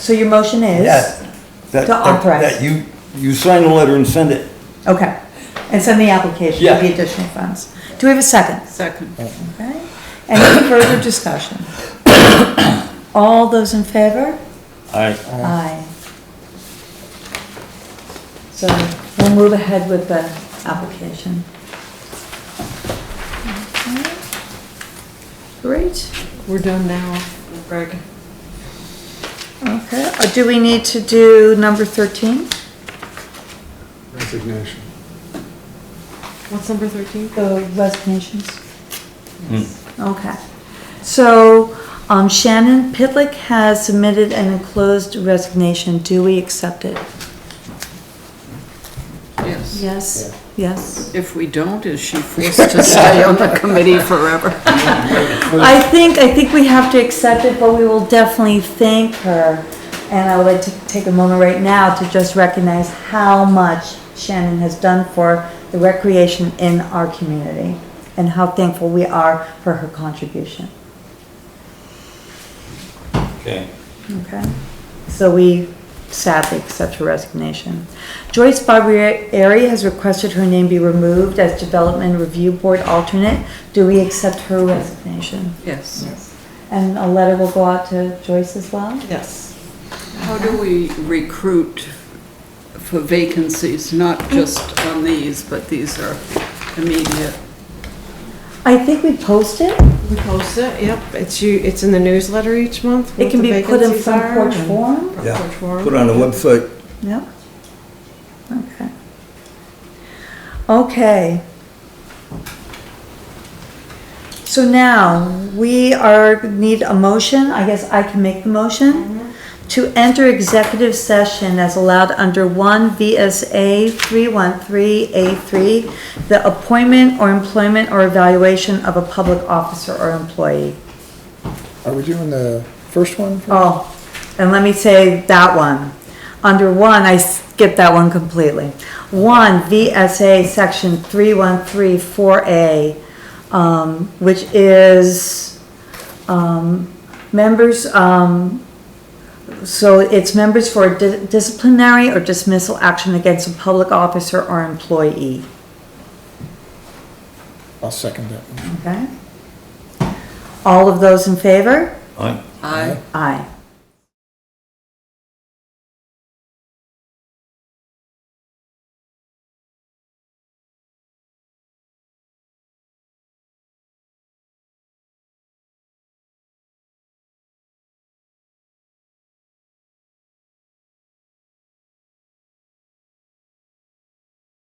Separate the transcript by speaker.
Speaker 1: So your motion is?
Speaker 2: Yes. That-
Speaker 1: To
Speaker 2: that-
Speaker 1: authorize.
Speaker 2: That you, you sign a letter and send it.
Speaker 1: Okay, and send the application with
Speaker 2: Yeah.
Speaker 1: the additional funds. Do we have a second?
Speaker 3: Second.
Speaker 1: Okay, any further discussion? All those in favor?
Speaker 2: Aye.
Speaker 1: Aye. So we'll move ahead with the application. Okay. Great,
Speaker 3: We're done now, Greg.
Speaker 1: okay, Uh, do we need to do number thirteen?
Speaker 4: Resignation.
Speaker 3: What's number thirteen?
Speaker 1: The resignations? Okay. So um, Shannon Pitlick has submitted an enclosed resignation. Do we accept it?
Speaker 3: Yes.
Speaker 1: Yes. Yes.
Speaker 3: If we don't, is she forced to stay on the committee forever?
Speaker 1: I think, I think we have to accept it, but we will definitely thank her. And I would like to take a moment right now to just recognize how much Shannon has done for the recreation in our community and how thankful we are for her contribution.
Speaker 2: Okay.
Speaker 1: Okay, so we sadly accept her resignation. Joyce Barbieri has requested her name be removed as Development Review Board alternate. Do we accept her resignation?
Speaker 3: Yes.
Speaker 1: And a letter will go out to Joyce as well?
Speaker 3: Yes. How do we recruit for vacancies, not just on these, but these are immediate?
Speaker 1: I think we post it.
Speaker 5: We post it, yep, it's you, it's in the newsletter each month.
Speaker 1: It
Speaker 5: what
Speaker 1: can
Speaker 5: the
Speaker 1: be put in
Speaker 5: vacancies
Speaker 1: front
Speaker 5: are
Speaker 1: porch
Speaker 5: and-
Speaker 1: form.
Speaker 5: front
Speaker 2: Yeah,
Speaker 5: porch forum.
Speaker 2: Put on the website.
Speaker 1: Yep. Okay. Okay. So now, we are, need a motion, I guess I can make the motion, to enter executive session as allowed under one VSA three one three A three, the appointment or employment or evaluation of a public officer or employee.
Speaker 4: Are we doing the first one? first?
Speaker 1: Oh, and let me say that one. Under one, I skipped that one completely. One, VSA section three one three four A, um, which is, um, members, um, so it's members for di- disciplinary or dismissal action against a public officer or employee,
Speaker 4: I'll second that one.
Speaker 1: okay? All of those in favor?
Speaker 2: Aye.
Speaker 3: Aye.
Speaker 1: Aye.